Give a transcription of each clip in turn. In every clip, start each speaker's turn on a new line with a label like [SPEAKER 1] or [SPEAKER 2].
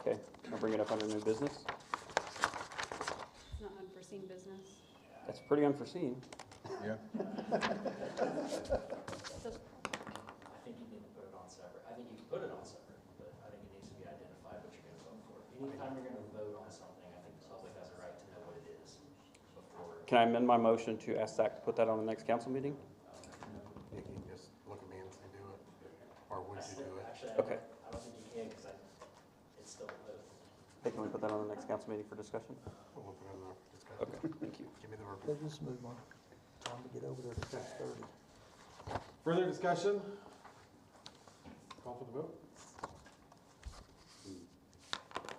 [SPEAKER 1] Okay, I'll bring it up under new business.
[SPEAKER 2] It's not unforeseen business.
[SPEAKER 1] That's pretty unforeseen.
[SPEAKER 3] Yeah.
[SPEAKER 4] I think you need to put it on separate, I think you can put it on separate, but I think it needs to be identified what you're gonna vote for. Anytime you're gonna vote on something, I think the public has a right to know what it is before.
[SPEAKER 1] Can I amend my motion to ask Zach to put that on the next council meeting?
[SPEAKER 5] You can just look at me and say, do it, or would you do it?
[SPEAKER 4] Actually, I
[SPEAKER 1] Okay.
[SPEAKER 4] don't, I don't think you can, cause I, it's still a vote.
[SPEAKER 1] Hey, can we put that on the next council meeting for discussion?
[SPEAKER 5] We'll put it in our discussion.
[SPEAKER 1] Okay, thank you.
[SPEAKER 5] Give me the report.
[SPEAKER 6] Let's just move on. Time to get over there at six thirty.
[SPEAKER 3] Further discussion? Call for the vote?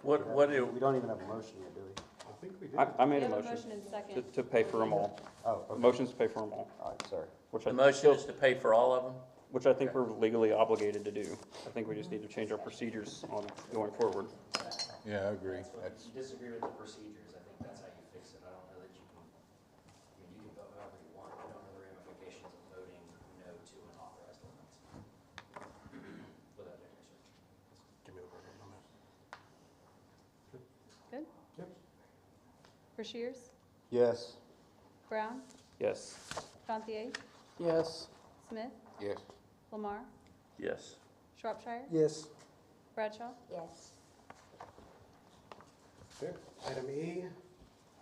[SPEAKER 7] What, what do,
[SPEAKER 5] We don't even have a motion yet, do we?
[SPEAKER 3] I think we did.
[SPEAKER 1] I, I
[SPEAKER 2] We
[SPEAKER 1] made a
[SPEAKER 2] have a
[SPEAKER 1] motion
[SPEAKER 2] motion and
[SPEAKER 1] to,
[SPEAKER 2] second.
[SPEAKER 1] to pay for them all.
[SPEAKER 5] Oh, okay,
[SPEAKER 1] Motion's to pay for them all,
[SPEAKER 5] all right, sorry.
[SPEAKER 1] which
[SPEAKER 7] the
[SPEAKER 1] I,
[SPEAKER 7] motion is to pay for all of them?
[SPEAKER 1] which I think we're legally obligated to do. I think we just need to change our procedures on going forward.
[SPEAKER 3] Yeah, I agree.
[SPEAKER 4] That's what, if
[SPEAKER 3] That's,
[SPEAKER 4] you disagree with the procedures, I think that's how you fix it, I don't know that you can, I mean, you can vote however you want, I don't know the ramifications of voting no to an authorized ordinance. Without doing research.
[SPEAKER 5] Give me the report on that.
[SPEAKER 2] Rushiers?
[SPEAKER 5] Yes.
[SPEAKER 2] Brown?
[SPEAKER 1] Yes.
[SPEAKER 2] Gantier?
[SPEAKER 1] Yes.
[SPEAKER 2] Smith?
[SPEAKER 5] Yes.
[SPEAKER 2] Lamar?
[SPEAKER 7] Yes.
[SPEAKER 2] Shropshire?
[SPEAKER 6] Yes,
[SPEAKER 2] Bradshaw?
[SPEAKER 8] Yes.
[SPEAKER 3] okay. Item E,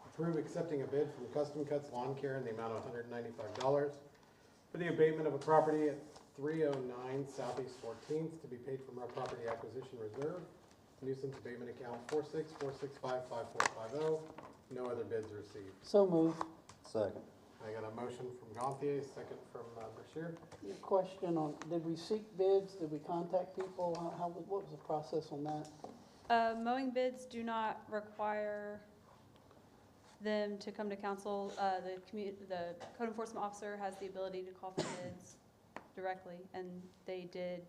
[SPEAKER 3] approve accepting a bid from Custom Cuts Lawn Care in the amount of hundred and ninety-five dollars for the abatement of a property at three oh nine Southeast Fourteenth to be paid from our property acquisition reserve. Nuisance abatement account four six four six five five four five oh. No other bids received.
[SPEAKER 6] so move.
[SPEAKER 5] Second.
[SPEAKER 3] I got a motion from Gantier, second from uh, Brashear.
[SPEAKER 9] Your question on, did we seek bids, did we contact people, how, how- what was the process on that?
[SPEAKER 2] Uh, mowing bids do not require them to come to council. Uh, the commu, the code enforcement officer has the ability to call for bids directly, and they did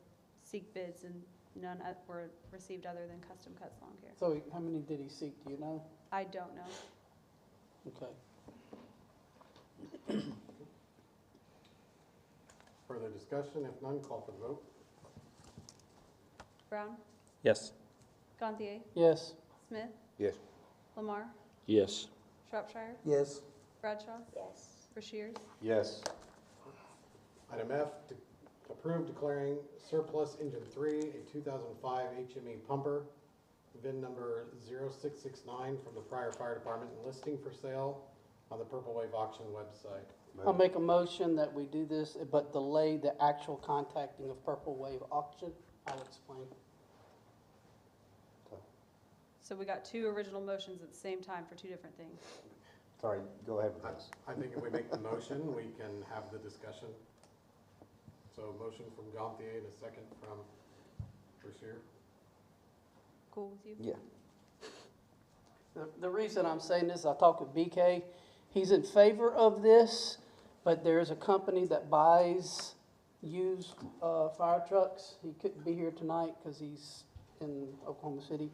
[SPEAKER 2] seek bids and none o- were received other than Custom Cuts Lawn Care.
[SPEAKER 9] So how many did he seek, do you know?
[SPEAKER 2] I don't know.
[SPEAKER 9] Okay.
[SPEAKER 3] Further discussion? If none, call for the vote.
[SPEAKER 2] Brown?
[SPEAKER 1] Yes.
[SPEAKER 2] Gantier?
[SPEAKER 9] Yes,
[SPEAKER 2] Smith?
[SPEAKER 5] Yes.
[SPEAKER 2] Lamar?
[SPEAKER 7] Yes.
[SPEAKER 2] Shropshire?
[SPEAKER 6] Yes,
[SPEAKER 2] Bradshaw?
[SPEAKER 8] Yes.
[SPEAKER 2] Rushiers?
[SPEAKER 5] Yes.
[SPEAKER 3] Item F, to approve declaring surplus engine three, a two thousand five HME pumper, VIN number 0669 from the prior fire department and listing for sale on the Purple Wave auction website.
[SPEAKER 9] I'll make a motion that we do this, but delay the actual contacting of Purple Wave Auction, I'll explain.
[SPEAKER 2] So we got two original motions at the same time for two different things.
[SPEAKER 5] Sorry, go ahead with
[SPEAKER 3] I-
[SPEAKER 5] this.
[SPEAKER 3] I think if we make the motion, we can have the discussion. So motion from Gantier and a second from Rushier.
[SPEAKER 2] Cool with you?
[SPEAKER 5] Yeah.
[SPEAKER 9] The, the reason I'm saying this, I talked with BK, he's in favor of this, but there is a company that buys used, uh, fire trucks. He couldn't be here tonight because he's in Oklahoma City.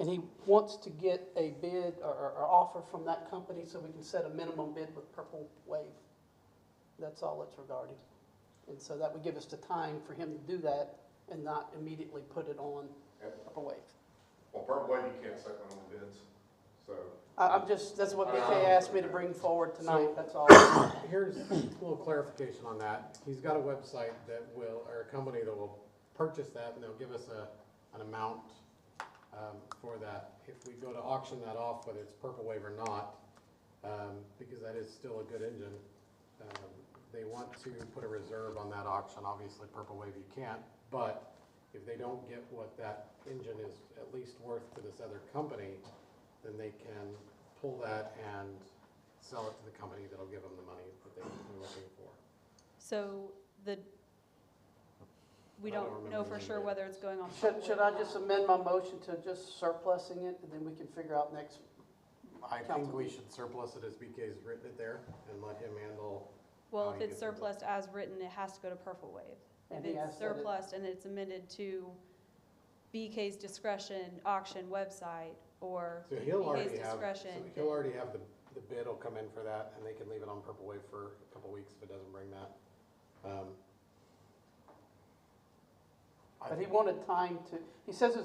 [SPEAKER 9] And he wants to get a bid or, or, or offer from that company so we can set a minimum bid with Purple Wave. That's all it's regarding. And so that would give us the time for him to do that and not immediately put it on Purple Wave.
[SPEAKER 10] Well, Purple Wave, you can't set minimum bids, so.
[SPEAKER 9] I, I'm just, that's what BK asked me to bring forward tonight, that's all.
[SPEAKER 3] Here's a little clarification on that. He's got a website that will, or a company that will purchase that, and they'll give us a, an amount um, for that. If we go to auction that off, whether it's Purple Wave or not, um, because that is still a good engine, um, they want to put a reserve on that auction. Obviously, Purple Wave you can't, but if they don't get what that engine is at least worth to this other company, then they can pull that and sell it to the company that'll give them the money that they were looking for.
[SPEAKER 2] So the, we
[SPEAKER 3] I don't
[SPEAKER 2] don't
[SPEAKER 3] remember
[SPEAKER 2] know
[SPEAKER 3] the
[SPEAKER 2] for
[SPEAKER 3] name
[SPEAKER 2] sure
[SPEAKER 3] of it.
[SPEAKER 2] whether it's going on.
[SPEAKER 9] Should, should I just amend my motion to just surplusing it, and then we can figure out next,
[SPEAKER 3] I think
[SPEAKER 9] Council.
[SPEAKER 3] we should surplus it as BK's written it there and let him handle,
[SPEAKER 2] Well,
[SPEAKER 3] Oh,
[SPEAKER 2] if
[SPEAKER 3] you
[SPEAKER 2] it's
[SPEAKER 3] get them.
[SPEAKER 2] surplus as written, it has to go to Purple Wave. If
[SPEAKER 9] And he
[SPEAKER 2] it's
[SPEAKER 9] asked that it-
[SPEAKER 2] surplus and it's amended to BK's discretion auction website or
[SPEAKER 3] so he'll already
[SPEAKER 2] BK's
[SPEAKER 3] have, so
[SPEAKER 2] discretion.
[SPEAKER 3] he'll already have the, the bid will come in for that and they can leave it on Purple Wave for a couple weeks if it doesn't bring that. Um, I
[SPEAKER 9] but he
[SPEAKER 3] think-
[SPEAKER 9] wanted time to, he says it's